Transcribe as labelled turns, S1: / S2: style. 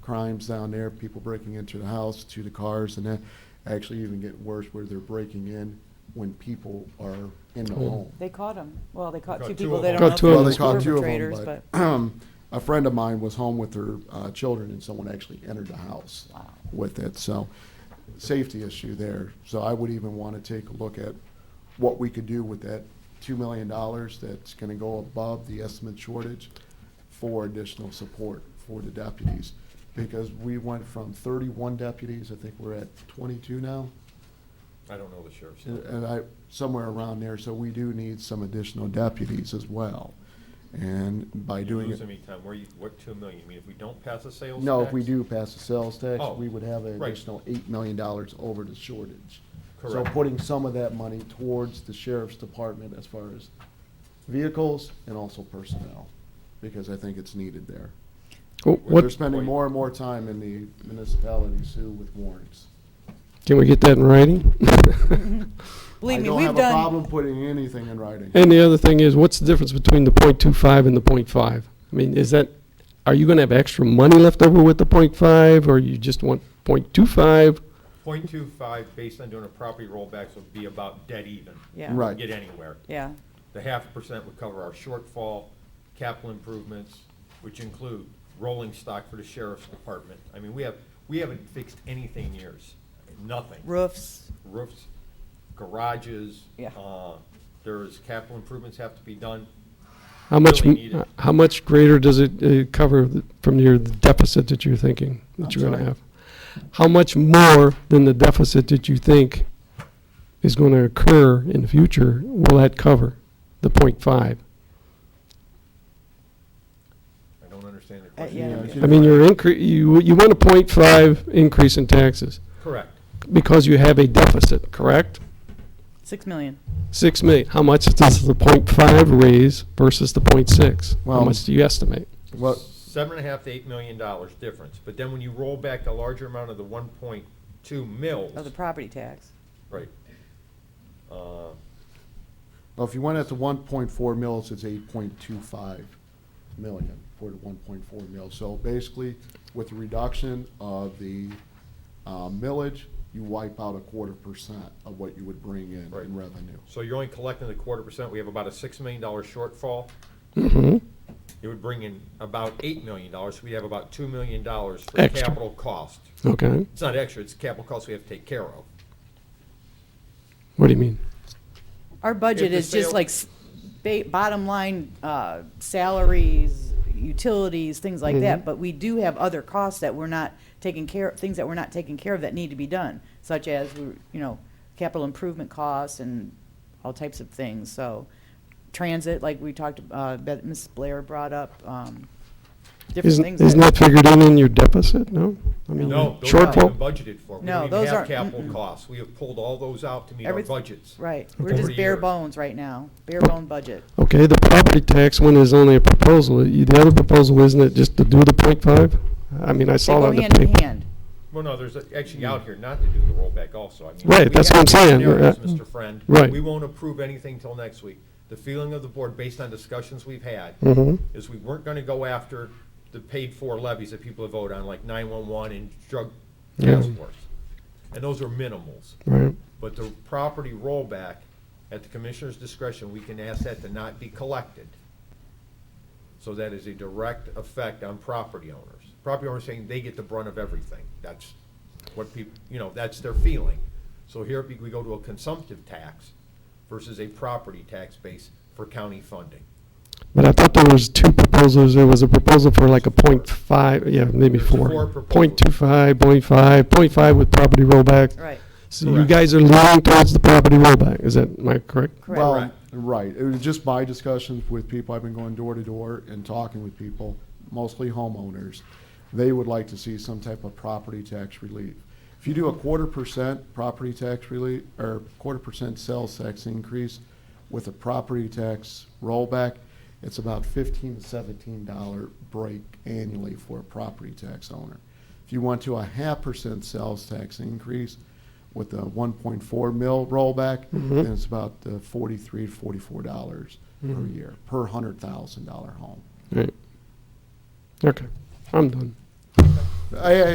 S1: crimes down there, people breaking into the house, to the cars, and that actually even get worse where they're breaking in when people are in the
S2: Oh.
S1: home.
S3: They caught them. Well, they caught
S4: caught
S3: two
S4: two
S3: people.
S4: of
S3: They
S4: them.
S3: don't know
S2: Caught
S3: if
S2: two
S3: they
S2: of
S1: Well,
S2: them.
S3: were
S1: they caught two of
S3: perpetrators,
S1: them,
S3: but,
S1: but um, a friend of mine was home with her uh, children, and someone actually entered the house
S3: wow.
S1: with it. So, safety issue there. So I would even want to take a look at what we could do with that two million dollars that's going to go above the estimate shortage for additional support for the deputies. Because we went from thirty-one deputies, I think we're at twenty-two now,
S4: I don't know the sheriff's.
S1: and- and I, somewhere around there, so we do need some additional deputies as well. And by doing
S4: Lose
S1: it,
S4: any time, where you, what two million, you mean if we don't pass the sales tax?
S1: no, if we do pass the sales tax,
S4: Oh,
S1: we would have an
S4: right.
S1: additional eight million dollars over the shortage. So
S4: Correct.
S1: putting some of that money towards the sheriff's department as far as vehicles and also personnel, because I think it's needed there.
S2: Oh,
S1: They're
S2: What,
S1: spending more and more time in the municipalities too with warrants.
S2: can we get that in writing?
S3: Believe me,
S1: I
S3: we've
S1: don't have a
S3: done,
S1: problem putting anything in writing.
S2: And the other thing is, what's the difference between the point two five and the point five? I mean, is that, are you gonna have extra money left over with the point five, or you just want point two five?
S4: Point two five, based on doing a property rollbacks, would be about dead even.
S3: yeah.
S1: Right.
S4: Get anywhere.
S3: Yeah,
S4: The half a percent would cover our shortfall, capital improvements, which include rolling stock for the sheriff's department. I mean, we have, we haven't fixed anything in years, nothing.
S3: roofs,
S4: Roofs, garages.
S3: Yeah.
S4: uh, There's capital improvements have to be done.
S2: How much,
S4: Really need it.
S2: how much greater does it uh, cover th- from your deficit that you're thinking,
S1: I'm
S2: that you're gonna
S1: sorry?
S2: have? How much more than the deficit that you think is gonna occur in the future will that cover, the point five?
S4: I don't understand the
S3: yeah.
S4: question.
S1: Yeah,
S2: I mean,
S1: it's-
S2: you're incre, you, you want a point five increase in taxes
S4: Correct.
S2: because you have a deficit, correct?
S3: six million.
S2: Six million. How much does the point five raise versus the point six? How
S1: Well-
S2: much do you estimate?
S1: Well,
S4: seven and a half to eight million dollars difference, but then when you roll back the larger amount of the one point two mills,
S3: of the property tax.
S4: right? Uh,
S1: Well, if you went at the one point four mils, it's eight point two five million for the one point four mil. So basically, with the reduction of the uh, millage, you wipe out a quarter percent of what you would bring in
S4: Right.
S1: in revenue.
S4: So you're only collecting the quarter percent, we have about a six million dollar shortfall.
S2: Mm-hmm.
S4: It would bring in about eight million dollars, so we have about two million dollars for
S2: Extra.
S4: capital cost.
S2: Okay.
S4: It's not extra, it's capital cost we have to take care of.
S2: What do you mean?
S3: Our budget
S4: the
S3: is just
S4: sale-
S3: like s- ba- bottom line, uh, salaries, utilities, things like
S4: Mm-hmm.
S3: that. But we do have other costs that we're not taking care, things that we're not taking care of that need to be done, such as, we you know, capital improvement costs and all types of things. So transit, like we talked, uh, that Ms. Blair brought up, um, different
S2: Isn't,
S3: things.
S2: isn't that figured in in your deficit? No? I mean,
S4: No, those aren't even
S2: shortfall?
S4: budgeted for, we
S3: No,
S4: don't even
S3: those
S4: have
S3: aren't-
S4: capital
S3: mm-mm.
S4: costs, we have pulled all those out to meet our
S3: Everyth-
S4: budgets.
S3: Right, we're
S4: Over
S3: just
S4: the
S3: bare
S4: years.
S3: bones right now, bare bone budget.
S2: Okay, the property tax one is only a proposal. You- The other proposal, isn't it just to do the point five? I mean, I
S3: They
S2: saw
S3: go
S2: that in the
S3: hand in
S2: paper.
S3: hand.
S4: Well, no, there's actually out here not to do the rollback also. I mean,
S2: Right,
S4: we
S2: that's
S4: have
S2: what I'm saying.
S4: scenarios,
S2: Uh,
S4: Mr. Friend.
S2: right.
S4: We won't approve anything till next week. The feeling of the board, based on discussions we've had,
S2: Mhm.
S4: is we weren't gonna go after the paid-for levies that people have voted on, like nine-one-one and drug
S2: Yeah.
S4: task force. And those are minimals.
S2: Right.
S4: But the property rollback, at the commissioner's discretion, we can ask that to not be collected. So that is a direct effect on property owners. Property owners saying they get the brunt of everything. That's what people, you know, that's their feeling. So here we go to a consumptive tax versus a property tax base for county funding.
S2: But I thought there was two proposals. There was a proposal for like a point five, yeah, maybe
S4: There's four
S2: four. Point two
S4: proposals.
S2: five, point five, point five with property rollback.
S3: Right,
S2: So you
S4: Correct.
S2: guys are leaning towards the property rollback. Is that, am I correct?
S3: correct.
S1: Well, right, it was just my discussions with people, I've been going door to door and talking with people, mostly homeowners. They would like to see some type of property tax relief. If you do a quarter percent property tax relief, or quarter percent sales tax increase with a property tax rollback, it's about fifteen to seventeen dollar break annually for a property tax owner. If you want to a half percent sales tax increase, with the 1.4 mil rollback, then it's about uh, 43 to 44 dollars per year per hundred thousand dollar home.
S2: Right. Okay, I'm done.
S1: I,